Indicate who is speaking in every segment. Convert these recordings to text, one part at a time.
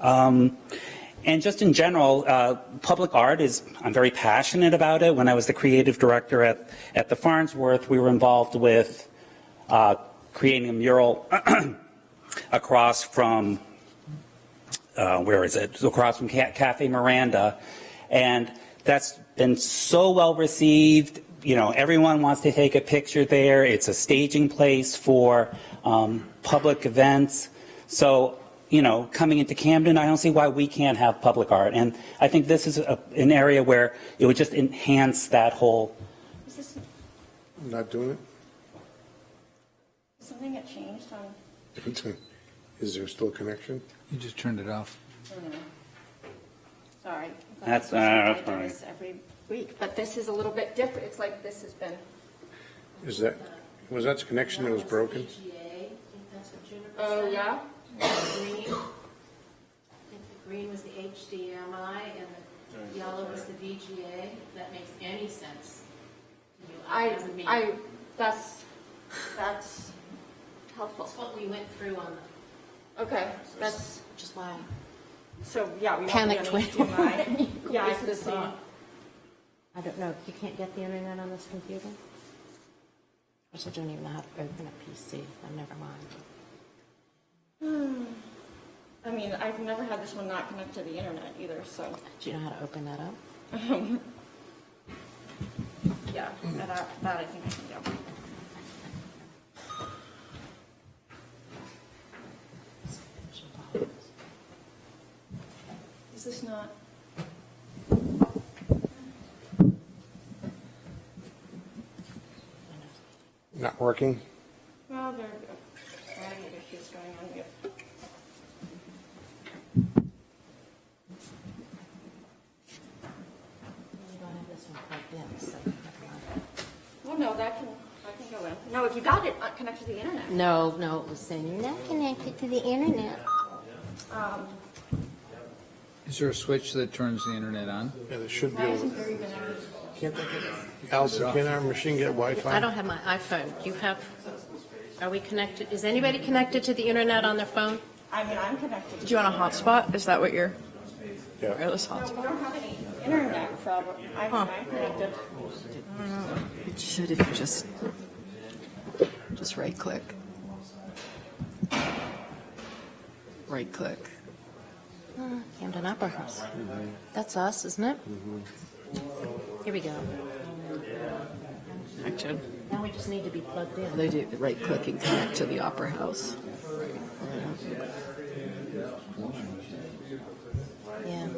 Speaker 1: Um, and just in general, uh, public art is, I'm very passionate about it. When I was the creative director at, at the Farnsworth, we were involved with uh, creating a mural across from, uh, where is it? Across from Ca- Cafe Miranda. And that's been so well received. You know, everyone wants to take a picture there. It's a staging place for um, public events. So, you know, coming into Camden, I don't see why we can't have public art. And I think this is a, an area where it would just enhance that whole.
Speaker 2: Is this
Speaker 3: Not doing
Speaker 2: something that changed on,
Speaker 3: it? Is there still a connection?
Speaker 4: You just turned it off.
Speaker 2: sorry. I'm glad
Speaker 1: That's-
Speaker 2: this isn't
Speaker 1: uh,
Speaker 2: like
Speaker 1: fine.
Speaker 2: this Every week, but this is a little bit different. It's like this has been,
Speaker 3: Is that, was that the connection that was broken?
Speaker 2: oh, yeah?
Speaker 5: Green, I think the green was the HDMI and the yellow was the VGA, if that makes any sense to you.
Speaker 2: I,
Speaker 5: doesn't mean-
Speaker 2: I, that's, that's helpful.
Speaker 5: That's what we went through on the,
Speaker 2: Okay, that's,
Speaker 5: which is why.
Speaker 2: so, yeah. we don't
Speaker 5: Panicked
Speaker 2: really
Speaker 5: when-
Speaker 2: do my- Yeah, I
Speaker 5: This
Speaker 2: could
Speaker 5: is
Speaker 2: see.
Speaker 5: not-
Speaker 6: I don't know, you can't get the internet on this computer? Of course, I don't even know how to open a PC, oh, never mind.
Speaker 2: I mean, I've never had this one not connect to the internet either, so,
Speaker 6: Do you know how to open that up?
Speaker 2: yeah, that, that I think I can do. Is this not?
Speaker 3: Not working?
Speaker 2: Well, there are a variety of issues going on here.
Speaker 6: You don't have this one plugged in, so never mind.
Speaker 2: Well, no, that can, that can go in. No, if you got it, uh, connect to the internet.
Speaker 6: No, no, it was saying you're not connected to the internet.
Speaker 4: Is there a switch that turns the internet on?
Speaker 3: Yeah, there should be.
Speaker 2: Why
Speaker 3: a-
Speaker 2: isn't there even a?
Speaker 3: Can't they get- Allison, can our machine get Wi-Fi?
Speaker 5: I don't have my iPhone. Do you have, are we connected, is anybody connected to the internet on their phone?
Speaker 2: I mean, I'm connected.
Speaker 7: Do you want a hotspot? Is that what you're
Speaker 3: Yeah.
Speaker 7: wireless
Speaker 2: No,
Speaker 7: hotspot?
Speaker 2: we don't have any internet problem. I'm,
Speaker 7: Huh.
Speaker 2: I'm connected.
Speaker 7: It should if you just just right click. Right click.
Speaker 6: Camden Opera House. That's us, isn't it? Here we go.
Speaker 7: Action.
Speaker 6: Now we just need to be plugged in.
Speaker 7: They do the right click and connect to the opera house.
Speaker 6: Yeah.
Speaker 7: Yeah.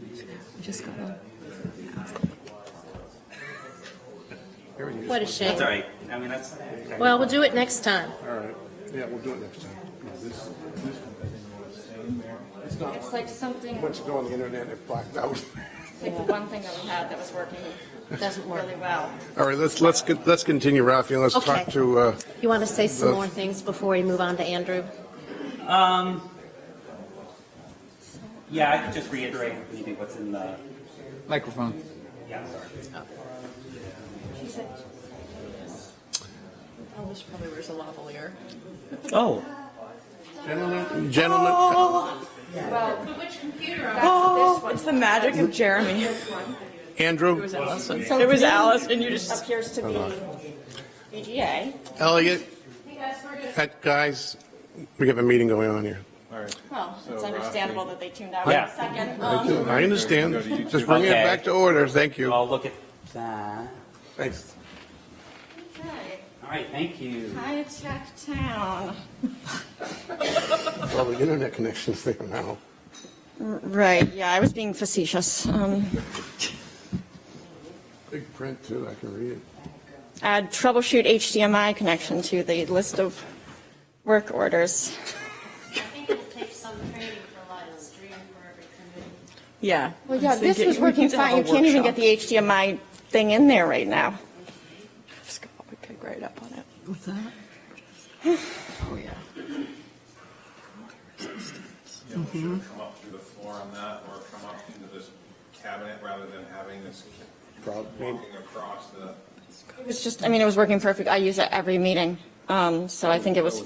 Speaker 7: We just got one.
Speaker 3: Everything
Speaker 5: What a
Speaker 3: just
Speaker 5: shame.
Speaker 1: Sorry, I mean, that's.
Speaker 5: Well, we'll do it next time.
Speaker 3: went- All right. Yeah, we'll do it next time. It's not,
Speaker 2: It's like something,
Speaker 3: once you go on the internet, it blacked out.
Speaker 2: it's like the one thing that we had that was working
Speaker 5: Doesn't work.
Speaker 2: really well.
Speaker 3: All right, let's, let's, get- let's continue, Rafi, and let's talk
Speaker 5: Okay.
Speaker 3: to, uh,
Speaker 5: You want to say some
Speaker 3: Uh,
Speaker 5: more things before we move on to Andrew?
Speaker 1: Yeah, I could just reiterate maybe what's in the.
Speaker 4: Microphone.
Speaker 1: Yeah, sorry.
Speaker 7: Oh, this probably wears a lavalier.
Speaker 1: Oh,
Speaker 3: gentlemen.
Speaker 2: Oh.
Speaker 5: Which computer?
Speaker 7: Oh, it's the magic of Jeremy.
Speaker 3: Andrew,
Speaker 7: Allison. It was Alice, and you just
Speaker 2: Appears to be VGA.
Speaker 3: Elliot, that- guys, we have a meeting going on here.
Speaker 2: Well, it's understandable that they tuned out
Speaker 1: Yeah.
Speaker 2: for a second. Um,
Speaker 3: uh, I understand. Just bring it
Speaker 1: Okay.
Speaker 3: back to order. Thank you.
Speaker 1: I'll look at that.
Speaker 3: Thanks.
Speaker 2: Okay,
Speaker 1: All right, thank you.
Speaker 2: high tech town.
Speaker 3: Well, the internet connection's there now.
Speaker 2: Right, yeah, I was being facetious. Um,
Speaker 3: Big print too, I can read it.
Speaker 2: add troubleshoot HDMI connection to the list of work orders.
Speaker 5: I think it takes some training for live stream for every committee.
Speaker 7: yeah.
Speaker 2: Well, yeah,
Speaker 7: I'm
Speaker 2: this
Speaker 7: thinking
Speaker 2: was
Speaker 7: we need
Speaker 2: working
Speaker 7: to have
Speaker 2: fine. You
Speaker 7: a
Speaker 2: can't even get
Speaker 7: workshop.
Speaker 2: the HDMI thing in there right now.
Speaker 7: Just could probably pick right up on it. What's that? Oh, yeah.
Speaker 8: Yeah, we should have come up through the floor on that, or come up into this cabinet rather than having this
Speaker 3: Probably.
Speaker 8: walking across the.
Speaker 2: It was just, I mean, it was working perfect. I use it every meeting. Um, so I think it was